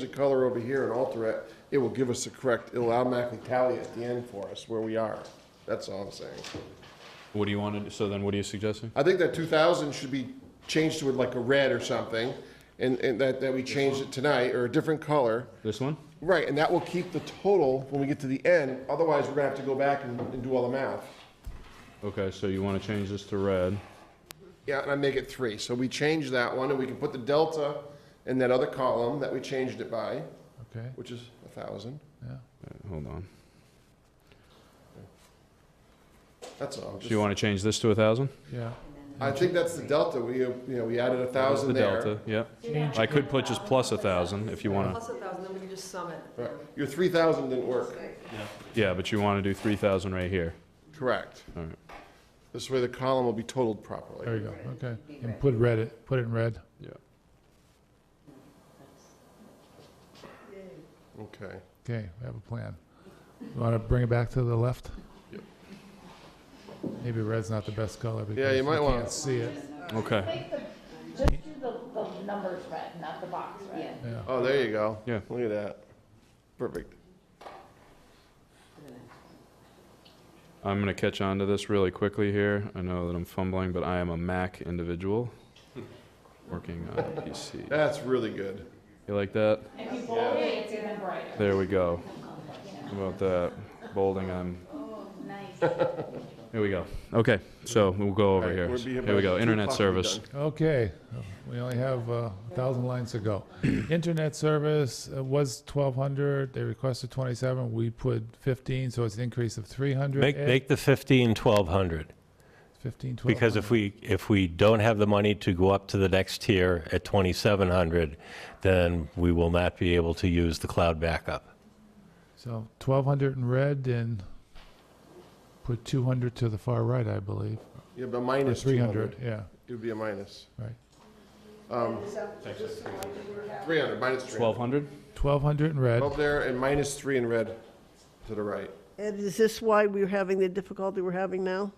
the color over here and alter it, it will give us the correct, it'll automatically tally at the end for us where we are. That's all I'm saying. What do you want to, do? so then what are you suggesting? I think that two thousand should be changed to like a red or something, and, and that, that we changed it tonight, or a different color. This one? Right, and that will keep the total when we get to the end, otherwise we're gonna have to go back and, and do all the math. Okay, so you want to change this to red. Yeah, and I make it three, so we change that one, and we can put the delta in that other column that we changed it by, Okay, which is a thousand, yeah. Uh, Hold on. that's all. So you want to change this to a thousand? Yeah, I think that's the delta, we, uh, you know, we added a thousand The there. delta, yep. I could put just plus a thousand if you want to, Plus a thousand, then we can just sum it. Right. Your three thousand didn't work, yeah, but you want to do three thousand right here. correct. All right. This way the column will be totaled properly. there you go, okay. And put red, it- put it in red. Yeah. Okay. Okay, we have a plan. You want to bring it back to the left? Yep. Maybe red's not the best color Yeah, because you you might wanna- can't see it. Okay, Make the, just do the, the numbers red, not the box red. Yeah, Oh, there you go. Yeah. Look at that. Perfect. I'm going to catch on to this really quickly here. I know that I'm fumbling, but I am a Mac individual, working on a PC. That's really good. You like that? If you bold it, it's even brighter. There we go. How About that bolding, I'm, Nice. here we go. Okay, so we'll go over All right, here. we'll be Here we go, about two internet o'clock, we'll be service. done. okay, we only have uh, a thousand lines to go. Internet service uh, was twelve hundred, they requested twenty-seven, we put fifteen, so it's an increase of three hundred. Make, make the 15 1,200, Fifteen, twelve. because if we, if we don't have the money to go up to the next tier at 2,700, then we will not be able to use the cloud backup. So twelve hundred in red and put two hundred to the far right, I believe. Yeah, but Or minus three hundred, yeah, It would be a minus. Um, right. Three hundred, minus three. Twelve hundred? Twelve hundred in red. Up there and minus three in red to the right. And is this why we're having the difficulty we're having now?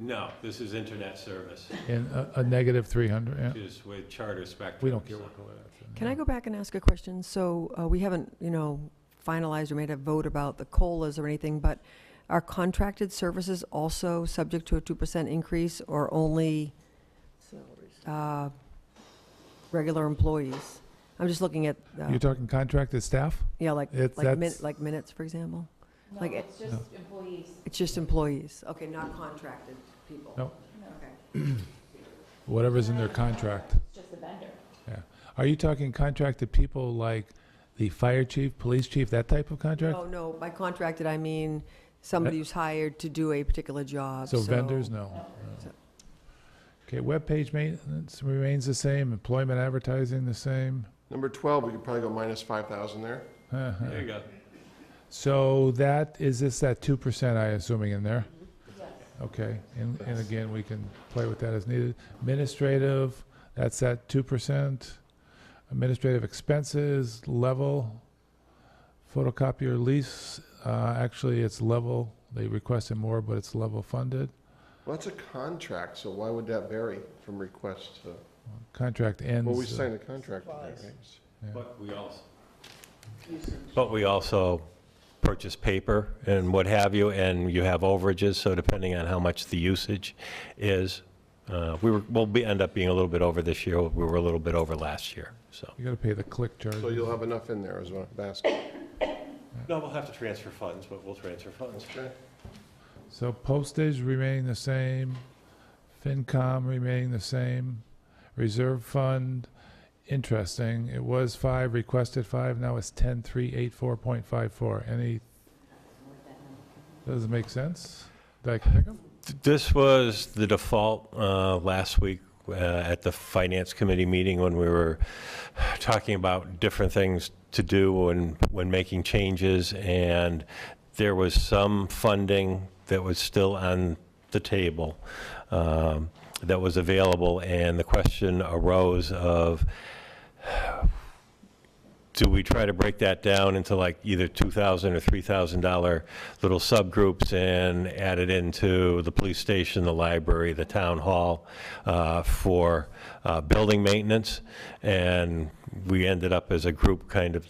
No, this is internet service, And a, a negative 300, yeah. is with Charter Spectrum. We don't care what color that's in. Can I go back and ask a question? So uh, we haven't, you know, finalized or made a vote about the COLAs or anything, but are contracted services also subject to a 2% increase or only uh, regular employees? I'm just looking at, uh, You're talking contracted staff? yeah, like, It's- like min- that's- like minutes, for example? No, Like it- it's just employees. It's just employees, okay, not contracted people? No. Okay. Whatever's in their contract, It's just a vendor. yeah. Are you talking contracted people like the fire chief, police chief, that type of contract? Oh, no, by contracted, I mean somebody who's hired to do a particular job, So so. vendors, no. So- Okay, webpage maintenance remains the same, employment advertising the same. Number twelve, we could probably go minus five thousand there. Uh-huh. There you go. So that, is this that 2% I assuming in there? Okay, and, and again, we can play with that as needed. Administrative, that's that 2%. Administrative expenses, level. Photocopier lease, uh, actually, it's level. They requested more, but it's level funded. Well, that's a contract, so why would that vary from request to? Contract ends. Well, we uh, signed a contract with that, right? But we also. But we also purchase paper and what have you, and you have overages, so depending on how much the usage is, uh, we were, we'll be, end up being a little bit over this year, we were a little bit over last year, so. You gotta pay the click So charge. you'll have enough in there as well, basket. No, we'll have to transfer funds, but we'll transfer funds. Okay. So postage remaining the same, FinCom remaining the same, reserve fund, interesting, it was five, requested five, now it's ten, three, eight, four point five four, any, doesn't make sense? Did I pick 'em? This was the default uh, last week uh, at the Finance Committee meeting when we were talking about different things to do when, when making changes, and there was some funding that was still on the table um, that was available, and the question arose of, do we try to break that down into like either $2,000 or $3,000 little subgroups and add it into the police station, the library, the town hall uh, for uh, building maintenance? And we ended up as a group kind of